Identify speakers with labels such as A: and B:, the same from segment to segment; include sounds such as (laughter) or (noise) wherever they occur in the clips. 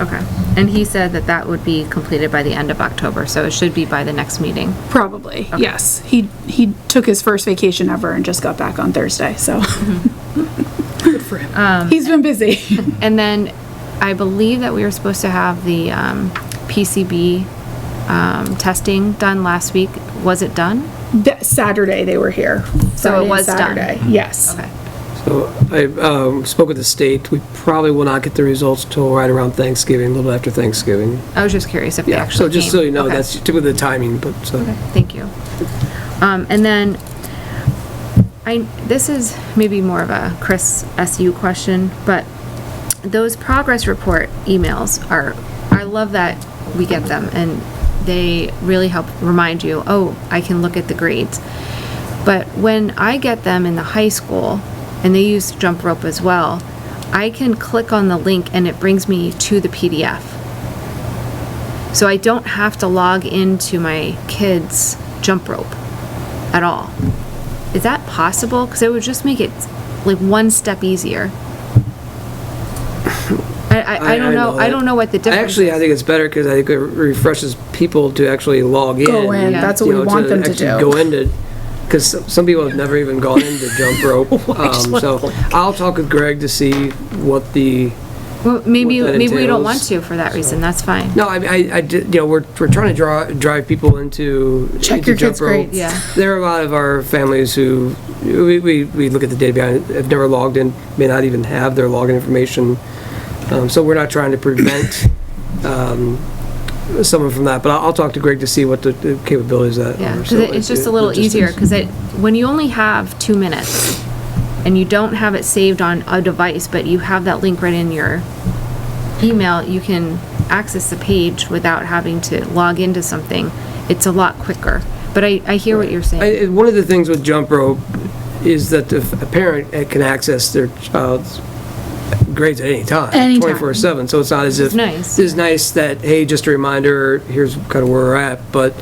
A: Okay. And he said that that would be completed by the end of October, so it should be by the next meeting.
B: Probably, yes. He, he took his first vacation ever and just got back on Thursday, so.
A: Mm-hmm.
B: (laughs) Um, Good for him. He's been busy.
A: And then I believe that we were supposed to have the um, PCB um, testing done last week. Was it done?
B: (laughs) That Saturday, they were here. Friday and
A: was done. Mm-hmm.
B: Saturday, Yes.
A: Okay.
C: So I um, spoke with the state, we probably will not get the results till right around Thanksgiving, a little after Thanksgiving.
A: I was just curious if they
C: Yeah,
A: actually
C: so just so
A: came.
C: you know,
A: Okay.
C: that's typically the timing, but, uh, so.
A: Thank you. Um, and then, I, this is maybe more of a Chris SU question, but those progress report emails are, I love that we get them and they really help remind you, oh, I can look at the grades. But when I get them in the high school, and they use jump rope as well, I can click on the link and it brings me to the PDF. So I don't have to log into my kids' jump rope at all. Is that possible? Because it would just make it like one step easier. I, I, I don't know, I don't know what the difference is.
C: Actually, I think it's better because I think it refreshes people to actually log in.
B: Go in,
A: Yeah.
B: that's what
C: you
B: we
C: know,
B: want them to
C: actually
B: do.
C: Go into, because some people have never even gone into jump
B: (laughs)
C: rope. Um, So I'll talk with Greg to see what the,
A: Well, maybe,
C: what that
A: maybe we don't want
C: entails.
A: to for that reason, that's fine.
C: no, I, I, I did- you know, we're, we're trying to draw, drive people into.
B: Check
C: into
B: your
C: jump
B: kids'
C: rope.
B: grades.
A: Yeah.
C: There are a lot of our families who, we, we, we look at the data behind, it, have never logged in, may not even have their login information. Um, so we're not trying to prevent, (coughs) um, someone from that, but I'll, I'll talk to Greg to see what the- the capabilities of that
A: Yeah,
C: are.
A: 'cause
C: So
A: it- it's just a little
C: logistics.
A: easier, because it, when you only have two minutes, and you don't have it saved on a device, but you have that link right in your email, you can access the page without having to log into something. It's a lot quicker, but I, I hear what you're saying.
C: I- I- One of the things with jump rope is that the f- a parent uh, can access their child's grades at any time.
B: Anytime.
C: 24/7, so it's not as if.
A: is nice.
C: It's nice that, hey, just a reminder, here's kind of where we're at, but,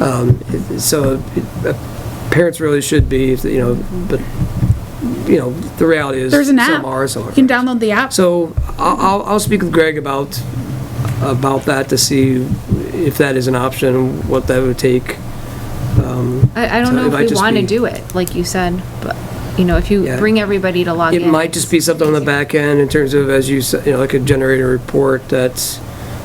C: um, it- so, it- uh, parents really should be, if, you know, but, you know, the reality is.
B: There's an app.
C: Some are, some
B: You
C: aren't.
B: can download the app.
C: So I'll, I'll- I'll speak with Greg about, about that to see if that is an option, what that would take.
A: I, I don't
C: So
A: know
C: it
A: if
C: might
A: we
C: just
A: want to
C: be-
A: do it, like you said, but, you know, if you
C: Yeah.
A: bring everybody to log in.
C: It might just be something on the back end in terms of, as you said, you know, like a generated report that's,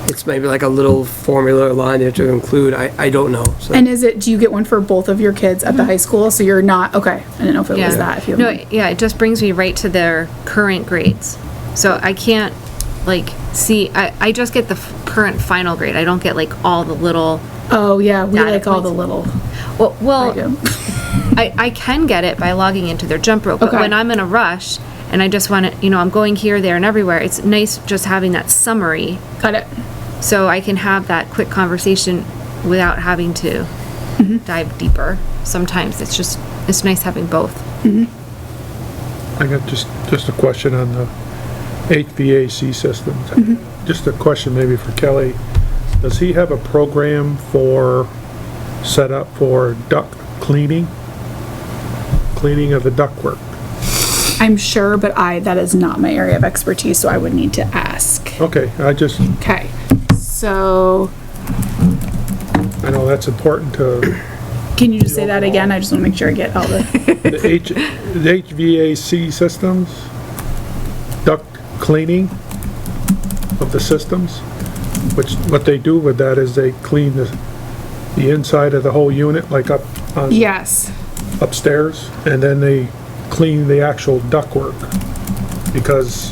C: it's maybe like a little formula or line you have to include. I, I don't know. So
B: And is it, do you get one for both of your kids at the high school? So you're not, okay, I didn't know if it was that. if you
A: No,
B: have-
A: Mm-hmm. yeah, it just brings me right to their current grades. So I can't, like, see, I, I just get the f- current final grade. I don't get, like, all the little,
B: Oh, yeah, we
A: Data
B: like all the
A: points.
B: little.
A: well,
B: I do.
A: well, (laughs) I, I can get it by logging into their jump rope. But
B: Okay.
A: when I'm in a rush and I just want to, you know, I'm going here, there, and everywhere, it's nice just having that summary
B: Got it.
A: so I can have that quick conversation without having to
B: Mm-hmm.
A: dive deeper. Sometimes it's just, it's nice having both.
D: I got just, just a question on the HVAC systems. Just a question maybe for Kelly. Does he have a program for, set up for duct cleaning? Cleaning of the ductwork?
B: I'm sure, but I, that is not my area of expertise, so I would need to ask.
D: Okay, I just,
B: Okay, so
D: I know that's important to,
B: can you just say that again? I just want to make sure I get all the,
D: the H, the HVAC systems? Duct cleaning of the systems? Which, what they do with that is they clean the, the inside of the whole unit, like up
B: (laughs)
D: on
B: yes.
D: upstairs, and then they clean the actual ductwork, because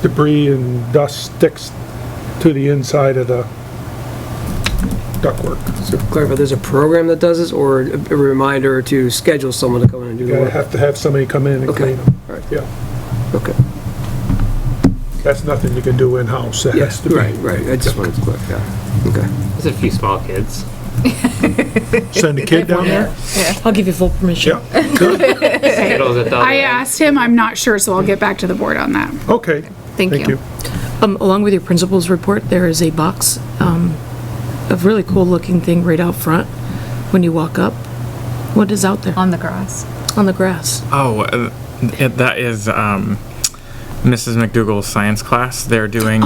D: debris and dust sticks to the inside of the ductwork.
C: so clarify, there's a program that does this or a a reminder to schedule someone to come in and do
D: You
C: the
D: gotta
C: work?
D: have to have somebody come in and
C: Okay,
D: clean them.
C: all right,
D: Yeah,
C: okay.
D: that's nothing you can do in-house. That has
C: Yes,
D: to be-
C: right, right. I just wanted to clarify, yeah, okay.
E: There's a few small kids.
D: Send a kid down there?
F: I'll give you full permission.
A: (laughs)
D: Yeah,
E: Skittles at the
B: I uh, asked him, I'm not sure, so I'll get back to the board on that.
D: okay.
A: Thank you.
F: Um, along with your principal's report, there is a box, um, of really cool-looking thing right out front when you walk up. What is out there?
A: On the grass.
F: On the grass.
G: Oh, uh, it, that is um, Mrs. McDougall's science class. They're doing